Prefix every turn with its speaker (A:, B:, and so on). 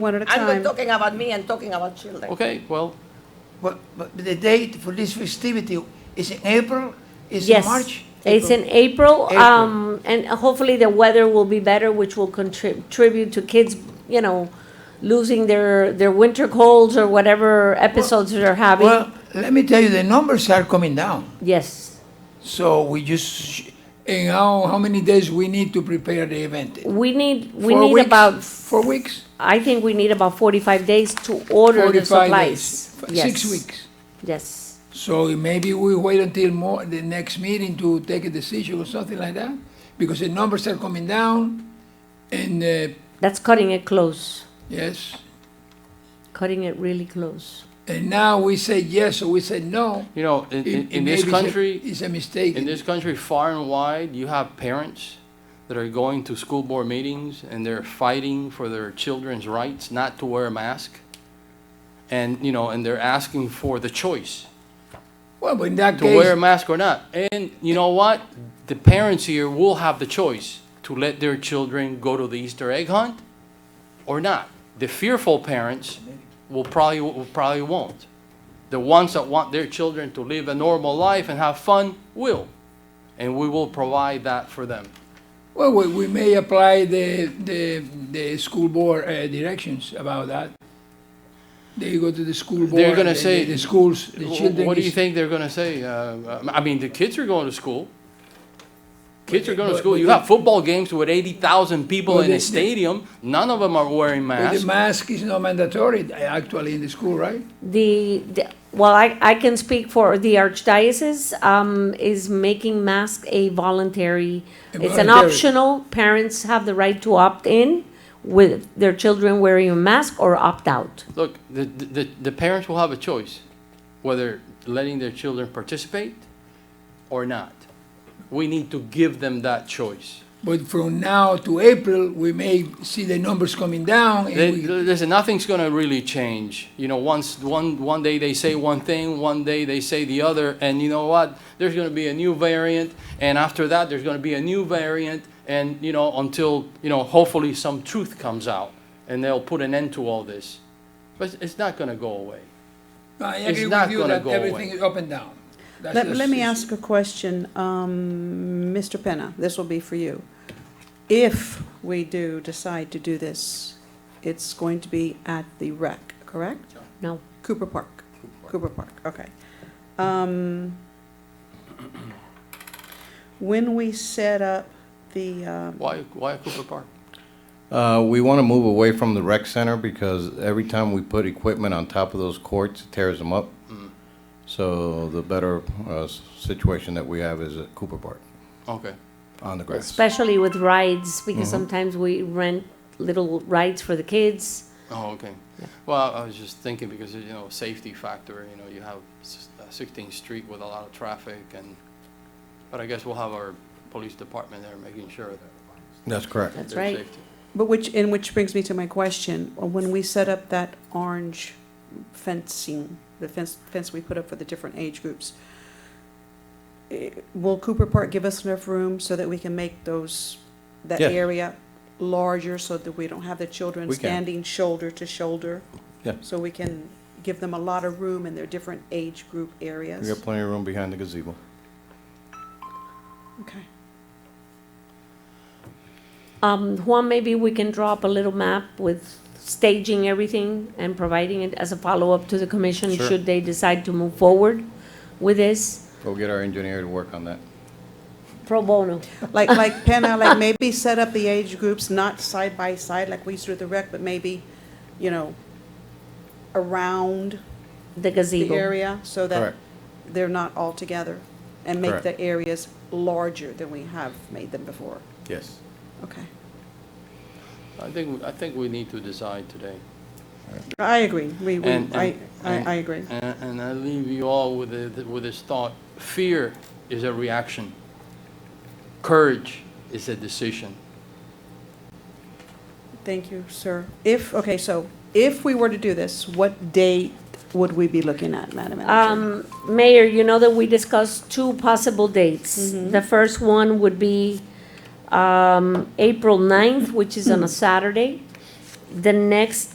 A: One at a
B: I'm not
A: time.
B: talking about me, I'm talking about children.
C: Okay, well,
D: But, but the date for this festivity is in April, is in
E: Yes,
D: March?
E: it's in April, um, and hopefully the weather will be better, which will contribute to kids, you know, losing their, their winter colds or whatever episodes they're having.
D: Well, let me tell you, the numbers are coming down.
E: Yes,
D: So we just, and how, how many days we need to prepare the event?
E: we need, we
D: Four
E: need
D: weeks?
E: about,
D: Four weeks?
E: I think we need about forty-five days to order the
D: 45
E: supplies.
D: days, f-
E: Yes,
D: Six weeks.
E: Yes,
D: So maybe we wait until more, the next meeting to take a decision or something like that? Because the numbers are coming down and, uh,
E: that's cutting it close,
D: yes.
E: cutting it really close.
D: And now we say yes or we say no.
C: you know, in,
D: it-
C: in,
D: it
C: in this
D: maybe is a-
C: country,
D: Is a mistake.
C: in this country, far and wide, you have parents that are going to school board meetings and they're fighting for their children's rights not to wear a mask. And, you know, and they're asking for the choice
D: Well, but in that
C: to wear a
D: case,
C: mask or not. And you know what? The parents here will have the choice to let their children go to the Easter egg hunt or not. The fearful parents will probably, will probably won't. The ones that want their children to live a normal life and have fun will. And we will provide that for them.
D: well, we, we may apply the, the, the school board uh, directions about that. They go to the school board.
C: They're gonna
D: the-
C: say-
D: The schools, the children.
C: What do
D: is-
C: you think they're gonna say? Uh, I mean, the kids are going to school. Kids are going to
D: But-
C: school.
D: but
C: You
D: the-
C: have football games with eighty thousand people
D: But
C: in
D: the-
C: a
D: the-
C: stadium. None of them are wearing
D: But
C: masks.
D: the mask is not mandatory uh, actually in the school, right?
E: The, the- well, I, I can speak for the archdiocese, um, is making masks a voluntary,
D: A
E: it's an
D: voluntary.
E: optional, parents have the right to opt in with their children wearing a mask or opt out.
C: Look, the, the, the parents will have a choice whether letting their children participate or not. We need to give them that choice.
D: But from now to April, we may see the numbers coming down. and
C: They-
D: we-
C: Listen, nothing's gonna really change. You know, once, one, one day they say one thing, one day they say the other, and you know what? There's gonna be a new variant, and after that, there's gonna be a new variant, and, you know, until, you know, hopefully some truth comes out, and they'll put an end to all this. But it's not gonna go away.
D: I
C: it's
D: agree
C: not
D: with you
C: gonna
D: that
C: go away.
D: everything is up and down. That's
A: Let,
D: just-
A: let me ask a question, um, Mr. Penna, this will be for you. If we do decide to do this, it's going to be at the rec, correct?
E: No,
A: Cooper Park, Cooper Park, okay. Um, When we set up the, um,
C: Why, why Cooper Park?
F: Uh, we want to move away from the rec center because every time we put equipment on top of those courts, it tears them up. So the better uh, s- situation that we have is at Cooper Park
C: Okay.
F: on the grass.
E: especially with rides, because
D: Mm-hmm.
E: sometimes we rent little rides for the kids.
C: Oh, okay. Well, I was just thinking because, you know, safety factor, you know, you have s- uh, 16th Street with a lot of traffic and, but I guess we'll have our police department there making sure that
F: That's correct.
E: That's
C: there's
E: right.
C: safety.
A: but which, and which brings me to my question, when we set up that orange fencing, the fence, fence we put up for the different age groups, eh, will Cooper Park give us enough room so that we can make those, that
F: Yeah.
A: area larger so that we don't have the children
F: We can.
A: standing shoulder to shoulder?
F: Yeah.
A: So we can give them a lot of room in their different age group areas?
F: We got plenty of room behind the gazebo.
A: Okay.
E: Um, Juan, maybe we can draw up a little map with staging everything and providing it as a follow-up to the commission,
F: Sure.
E: should they decide to move forward with this
F: Go get our engineer to work on that.
E: pro bono.
A: Like, like Penna, like maybe set up the age groups not side by side like we used to do at the rec, but maybe, you know, around
E: The
A: the
E: gazebo.
A: area so that
F: Correct.
A: they're not all together and make
F: Correct.
A: the areas larger than we have made them before.
F: Yes.
A: Okay.
C: I think, I think we need to decide today.
A: I agree. We, we,
C: And-
A: I,
C: and-
A: I,
C: and-
A: I agree.
C: And, and I leave you all with, the- with this thought. Fear is a reaction. Courage is a decision.
A: Thank you, sir. If, okay, so if we were to do this, what date would we be looking at, Madam Manager?
E: Um, Mayor, you know that we discussed two possible dates.
A: Mm-hmm.
E: The first one would be,
A: Mm.
E: um, April ninth, which is on a Saturday. The next